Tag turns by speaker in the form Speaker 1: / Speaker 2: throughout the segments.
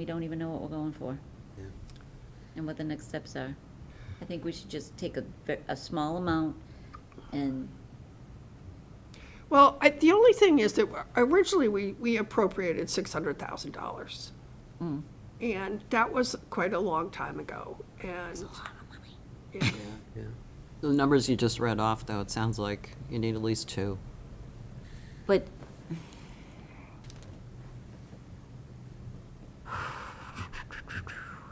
Speaker 1: We don't even know what we're going for
Speaker 2: Yeah.
Speaker 1: and what the next steps are. I think we should just take a, ve- a small amount and,
Speaker 3: Well, I, the only thing is that originally we, we appropriated six hundred thousand dollars.
Speaker 1: mm,
Speaker 3: And that was quite a long time ago, and. Yeah.
Speaker 2: Yeah.
Speaker 4: The numbers you just read off, though, it sounds like you need at least two.
Speaker 1: but.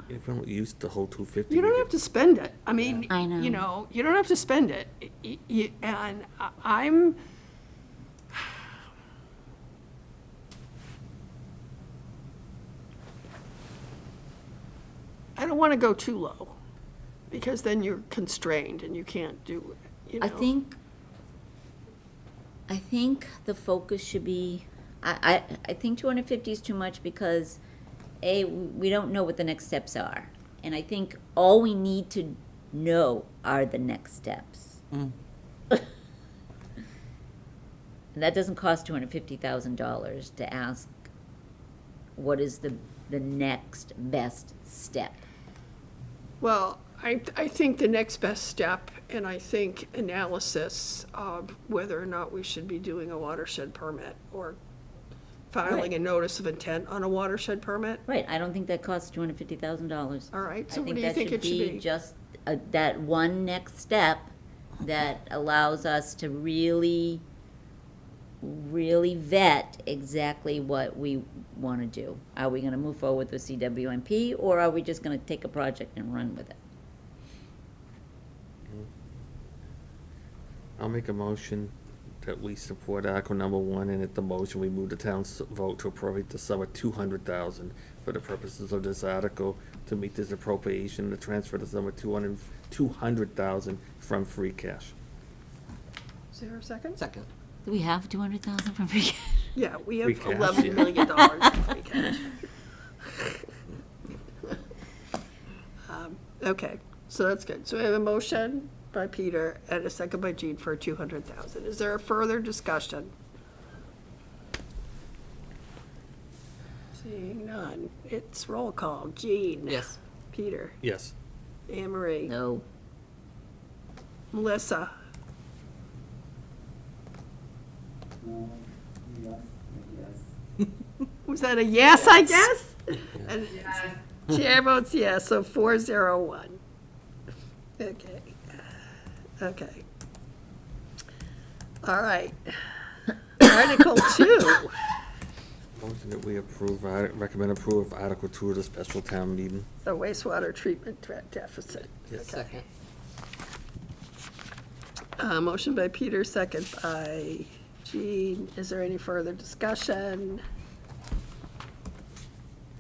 Speaker 2: If we don't use the whole two fifty.
Speaker 3: You don't have to spend it. I mean,
Speaker 1: I know.
Speaker 3: you know, you don't have to spend it. Y- y- y- And I- I'm, I don't want to go too low, because then you're constrained and you can't do it, you know?
Speaker 1: I think, I think the focus should be, I, I, I think two hundred fifty is too much because, A, we don't know what the next steps are. And I think all we need to know are the next steps.
Speaker 4: Mm.
Speaker 1: And that doesn't cost two hundred fifty thousand dollars to ask, what is the, the next best step?
Speaker 3: Well, I, I think the next best step, and I think analysis of whether or not we should be doing a watershed permit or filing a
Speaker 1: Right.
Speaker 3: notice of intent on a watershed permit,
Speaker 1: Right, I don't think that costs two hundred fifty thousand dollars.
Speaker 3: all right?
Speaker 1: I
Speaker 3: So what
Speaker 1: think
Speaker 3: do you
Speaker 1: that
Speaker 3: think
Speaker 1: should
Speaker 3: it should
Speaker 1: be
Speaker 3: be?
Speaker 1: just uh, that one next step that allows us to really, really vet exactly what we want to do. Are we going to move forward with CWMP, or are we just going to take a project and run with it?
Speaker 2: I'll make a motion that we support Article number one, and at the motion, we move the town's vote to appropriate the sum of two hundred thousand for the purposes of this article to meet this appropriation, to transfer the sum of two hundred, two hundred thousand from free cash.
Speaker 3: Is there a second?
Speaker 4: Second.
Speaker 1: Do we have two hundred thousand from free cash?
Speaker 3: Yeah, we have
Speaker 2: Free cash, yeah.
Speaker 3: eleven million dollars in free cash. Um, Okay, so that's good. So we have a motion by Peter and a second by Jean for two hundred thousand. Is there a further discussion? Seeing none, it's roll call. Jean?
Speaker 4: Yes.
Speaker 3: Peter?
Speaker 2: Yes.
Speaker 3: Anne Marie?
Speaker 1: No.
Speaker 3: Melissa? Was that a yes, I guess? And Chair votes yes, so four zero one. Okay, okay. All right. Article two,
Speaker 2: Motion that we approve, I recommend approval of Article two of the special town meeting.
Speaker 3: the wastewater treatment de- deficit.
Speaker 4: Second.
Speaker 3: Uh, motion by Peter, second by Jean. Is there any further discussion?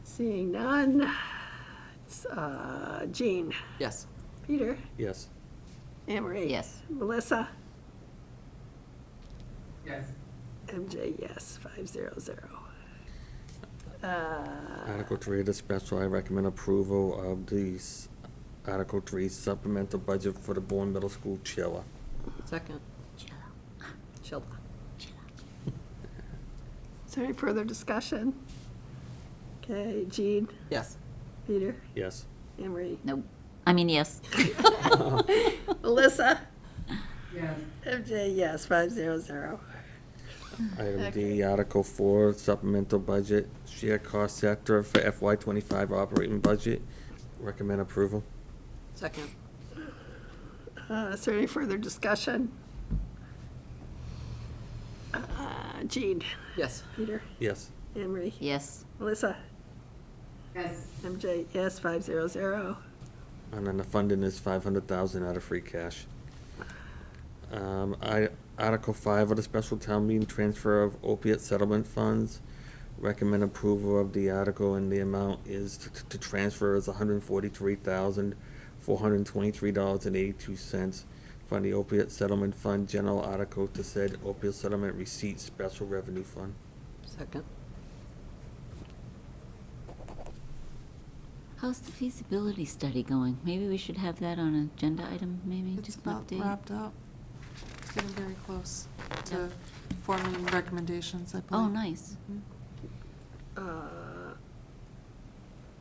Speaker 3: Seeing none. It's, uh, Jean,
Speaker 4: Yes.
Speaker 3: Peter,
Speaker 2: Yes.
Speaker 3: Anne Marie.
Speaker 1: Yes.
Speaker 3: Melissa,
Speaker 5: Yes.
Speaker 3: MJ, yes, five zero zero.
Speaker 2: Article three of the special, I recommend approval of the s- Article three supplemental budget for the Bourne Middle School chiller.
Speaker 4: Second.
Speaker 3: Sheila. Is there any further discussion? Okay, Jean,
Speaker 4: Yes.
Speaker 3: Peter,
Speaker 2: Yes.
Speaker 3: Anne Marie,
Speaker 1: No. I mean, yes.
Speaker 3: Melissa,
Speaker 5: Yes.
Speaker 3: MJ, yes, five zero zero.
Speaker 2: Item D, Article Four, Supplemental Budget, Share Cost Sector for FY twenty-five Operating Budget. Recommend approval.
Speaker 4: Second.
Speaker 3: Uh, Is there any further discussion? Uh, Jean,
Speaker 4: Yes.
Speaker 3: Peter,
Speaker 2: Yes.
Speaker 3: Anne Marie,
Speaker 1: Yes.
Speaker 3: Melissa,
Speaker 5: Yes.
Speaker 3: MJ, yes, five zero zero.
Speaker 2: And then the funding is five hundred thousand out of free cash. Um, I, Article Five of the Special Town Meeting, Transfer of Opiate Settlement Funds. Recommend approval of the article and the amount is to, to- to transfer is hundred and forty-three thousand, four hundred and twenty-three dollars and eighty-two cents from the Opiate Settlement Fund General Article to said Opiate Settlement Receipt Special Revenue Fund.
Speaker 4: Second.
Speaker 1: How's the feasibility study going? Maybe we should have that on an agenda item, maybe,
Speaker 6: It's
Speaker 1: just an
Speaker 6: about
Speaker 1: update?
Speaker 6: wrapped up. It's getting very close to forming recommendations, I believe.
Speaker 1: Oh, nice.
Speaker 3: Uh,